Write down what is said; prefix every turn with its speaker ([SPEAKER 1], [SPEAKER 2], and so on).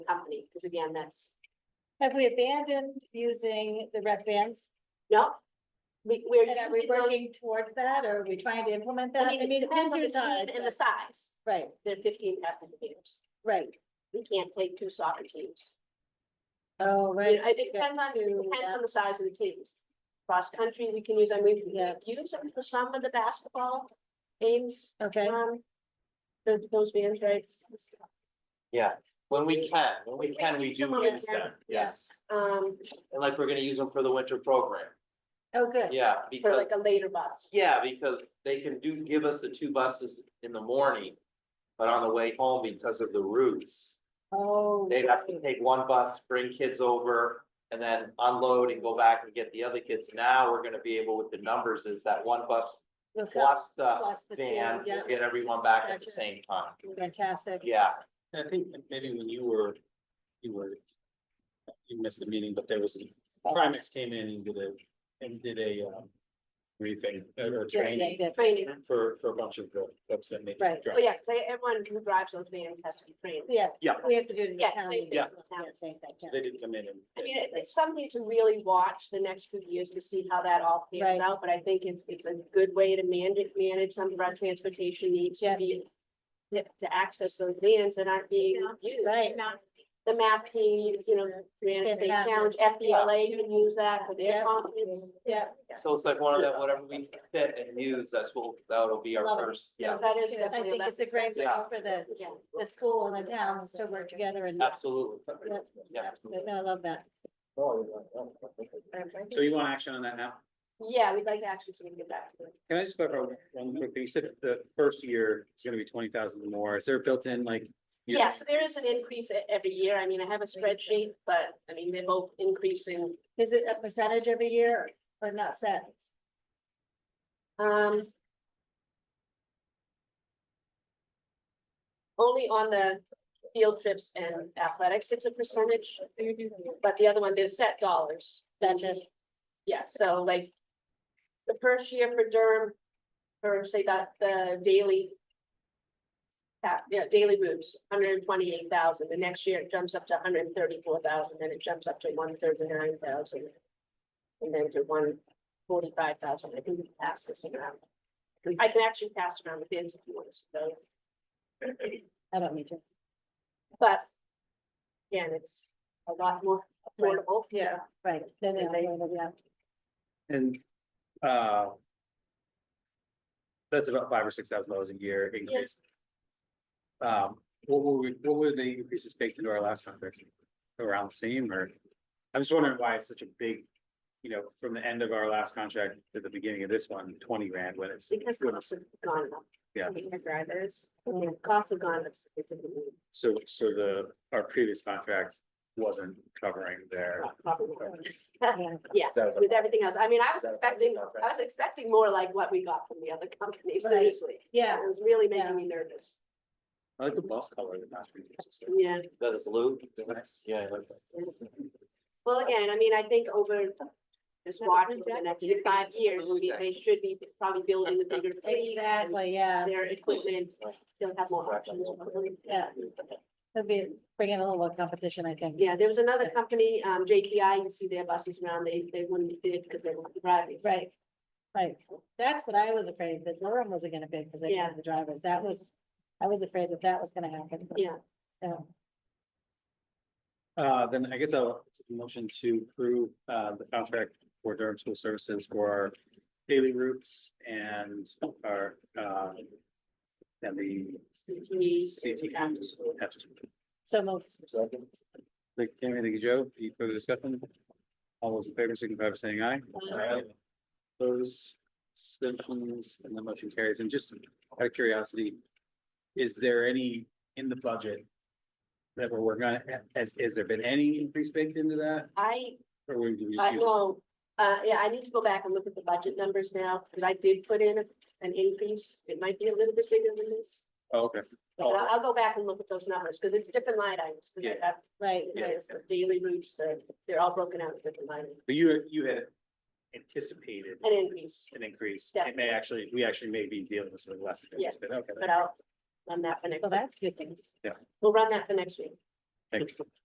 [SPEAKER 1] company, because again, that's,
[SPEAKER 2] Have we abandoned using the rec bands?
[SPEAKER 1] no. We, we're
[SPEAKER 2] And are we
[SPEAKER 1] using those,
[SPEAKER 2] working towards that or are we trying to implement that?
[SPEAKER 1] I mean, it depends on the team and the
[SPEAKER 2] but-
[SPEAKER 1] size,
[SPEAKER 2] Right,
[SPEAKER 1] they're fifteen applicants,
[SPEAKER 2] right.
[SPEAKER 1] we can't take two soccer teams.
[SPEAKER 2] Oh,
[SPEAKER 1] I mean,
[SPEAKER 2] right.
[SPEAKER 1] It depends on, it depends on the size of the teams. Cross-country, we can use, I mean, we
[SPEAKER 2] Yeah.
[SPEAKER 1] use them for some of the basketball games,
[SPEAKER 2] Okay,
[SPEAKER 1] um, those, those vans, right?
[SPEAKER 3] Yeah, when we can, when we can, we do
[SPEAKER 1] Some of it
[SPEAKER 3] use
[SPEAKER 1] can,
[SPEAKER 3] them,
[SPEAKER 2] yeah.
[SPEAKER 3] yes,
[SPEAKER 1] Um,
[SPEAKER 3] and like, we're gonna use them for the winter program,
[SPEAKER 2] oh, good.
[SPEAKER 3] yeah,
[SPEAKER 1] for
[SPEAKER 3] because,
[SPEAKER 1] like a later bus.
[SPEAKER 3] yeah, because they can do, give us the two buses in the morning. But on the way home, because of the routes,
[SPEAKER 2] Oh.
[SPEAKER 3] they'd have to take one bus, bring kids over, and then unload and go back and get the other kids. Now, we're gonna be able with the numbers is that one bus
[SPEAKER 2] look up,
[SPEAKER 3] plus the
[SPEAKER 2] plus the field,
[SPEAKER 3] van, we'll
[SPEAKER 2] yeah,
[SPEAKER 3] get everyone back at
[SPEAKER 2] Gotcha.
[SPEAKER 3] the same time.
[SPEAKER 2] Fantastic.
[SPEAKER 3] Yeah.
[SPEAKER 4] I think that maybe when you were, you were. You missed the meeting, but there was, Primex came in and did a, and did a, um. Briefing uh, or a
[SPEAKER 2] Yeah, yeah,
[SPEAKER 4] training
[SPEAKER 2] yeah,
[SPEAKER 1] Training,
[SPEAKER 4] for, for a bunch of the folks that made.
[SPEAKER 2] Right.
[SPEAKER 1] oh yeah, because everyone who drives those vans has to be trained.
[SPEAKER 2] Yeah.
[SPEAKER 3] Yeah.
[SPEAKER 2] We have to do it in the
[SPEAKER 1] Yeah,
[SPEAKER 2] town.
[SPEAKER 1] same
[SPEAKER 2] meeting
[SPEAKER 1] thing.
[SPEAKER 2] as well.
[SPEAKER 1] Yeah.
[SPEAKER 2] Yeah, same thing, yeah.
[SPEAKER 4] They didn't come in and.
[SPEAKER 1] I mean, it- it's something to really watch the next few years to see how that all
[SPEAKER 2] Right.
[SPEAKER 1] pans out, but I think it's, it's a good way to manage, manage some of our transportation needs
[SPEAKER 2] Yeah.
[SPEAKER 1] to be. To to access those lands that aren't being used.
[SPEAKER 2] Right.
[SPEAKER 1] The mapping, you know, Granite State Challenge, FBLA can use that for
[SPEAKER 2] Yeah.
[SPEAKER 1] their conference.
[SPEAKER 2] Yeah,
[SPEAKER 3] So it's like one of that, whatever we fit and use, that's what, that'll be our
[SPEAKER 2] Love it.
[SPEAKER 3] first, yeah,
[SPEAKER 1] That is
[SPEAKER 2] I
[SPEAKER 1] definitely
[SPEAKER 2] think
[SPEAKER 1] less
[SPEAKER 2] it's a great way
[SPEAKER 3] Yeah.
[SPEAKER 2] for the,
[SPEAKER 1] Yeah.
[SPEAKER 2] the school and the towns to work together and.
[SPEAKER 3] absolutely.
[SPEAKER 2] Yeah,
[SPEAKER 3] Yeah.
[SPEAKER 2] I love that.
[SPEAKER 4] So you want action on that now?
[SPEAKER 1] Yeah, we'd like to actually sort of get back to it.
[SPEAKER 4] Can I just clarify one quick thing? You said the first year is gonna be twenty thousand more. Is there built in like? year-
[SPEAKER 1] Yeah, so there is an increase e- every year. I mean, I have a spreadsheet, but I mean, they're both increasing.
[SPEAKER 2] Is it a percentage every year or not set?
[SPEAKER 1] Um. Only on the field trips and athletics, it's a percentage, but the other one, they're set dollars.
[SPEAKER 2] Gotcha.
[SPEAKER 1] Yeah, so like. The first year for Durham, or say that the daily. that- yeah, daily routes, hundred and twenty-eight thousand, the next year it jumps up to hundred and thirty-four thousand, then it jumps up to one thirty-nine thousand. And then to one forty-five thousand, I think we can pass this around. I can actually pass around the bins if you want to see those,
[SPEAKER 2] I don't need to.
[SPEAKER 1] but. Again, it's a lot more affordable, yeah.
[SPEAKER 2] Right. Then they, yeah.
[SPEAKER 4] And, uh. That's about five or six thousand dollars a year increase. Um, what were we, what were the increases baked into our last contract? Around the same or? I'm just wondering why it's such a big, you know, from the end of our last contract to the beginning of this one, twenty grand when it's.
[SPEAKER 1] Because costs have gone up.
[SPEAKER 4] Yeah.
[SPEAKER 1] I mean, The drivers, yeah, costs have gone up significantly,
[SPEAKER 4] So, so the, our previous contract wasn't covering their.
[SPEAKER 1] pro- probably more.
[SPEAKER 2] Yeah.
[SPEAKER 1] Yeah,
[SPEAKER 4] That was-
[SPEAKER 1] with everything else. I mean, I was
[SPEAKER 4] That was-
[SPEAKER 1] expecting, I was expecting more like what we got from the other company,
[SPEAKER 2] Right.
[SPEAKER 1] seriously.
[SPEAKER 2] Yeah,
[SPEAKER 1] It was really
[SPEAKER 2] Yeah.
[SPEAKER 1] making me nervous.
[SPEAKER 4] I like the bus color. the master is-
[SPEAKER 1] Yeah.
[SPEAKER 3] That's blue.
[SPEAKER 4] It's nice.
[SPEAKER 3] Yeah. I like that.
[SPEAKER 1] Well, again, I mean, I think over just watching for the next five years, we- they should be probably building the bigger fleet. and
[SPEAKER 2] exactly, yeah.
[SPEAKER 1] Their equipment, they'll have more options.
[SPEAKER 2] Yeah. It'll be bringing a little more competition, I think.
[SPEAKER 1] Yeah, there was another company, um, JPI, you see their buses around, they, they wouldn't bid because they weren't driving.
[SPEAKER 2] Right, right. That's what I was afraid, that Durham wasn't gonna bid because they didn't have the drivers. That was, I was afraid that that was gonna happen.
[SPEAKER 1] Yeah.
[SPEAKER 2] Yeah.
[SPEAKER 4] Uh, then I guess I'll take a motion to approve, uh, the contract for Durham School Services for our daily routes and our, uh, and the CT.
[SPEAKER 1] E.
[SPEAKER 4] E.
[SPEAKER 1] CTE, after school.
[SPEAKER 4] after school.
[SPEAKER 2] So moved.
[SPEAKER 4] Thank you, Tammy. Thank you, Joe. Any further discussion? All those in favor, signify by saying aye.
[SPEAKER 3] Aye.
[SPEAKER 4] Those extensions and the motion carries. And just out of curiosity, is there any in the budget that we're working on? Has, has there been any increase baked into that?
[SPEAKER 1] I
[SPEAKER 4] Or we do we
[SPEAKER 1] I
[SPEAKER 4] use-
[SPEAKER 1] know, uh, yeah, I need to go back and look at the budget numbers now, because I did put in an increase, it might be a little bit bigger than this.
[SPEAKER 4] Oh, Okay.
[SPEAKER 1] But I'll, I'll go back and look at those numbers, because it's different line items, because I have,
[SPEAKER 2] Right,
[SPEAKER 1] you know, it's the daily routes, they're, they're all broken out in different line, items.
[SPEAKER 4] But you, you had anticipated
[SPEAKER 1] an increase,
[SPEAKER 4] an increase.
[SPEAKER 1] Yeah.
[SPEAKER 4] It may actually, we actually may be dealing with something less than this, but okay.
[SPEAKER 1] but I'll run that for next,
[SPEAKER 2] well, that's good things.
[SPEAKER 1] we'll run that for next week.
[SPEAKER 4] Thank you.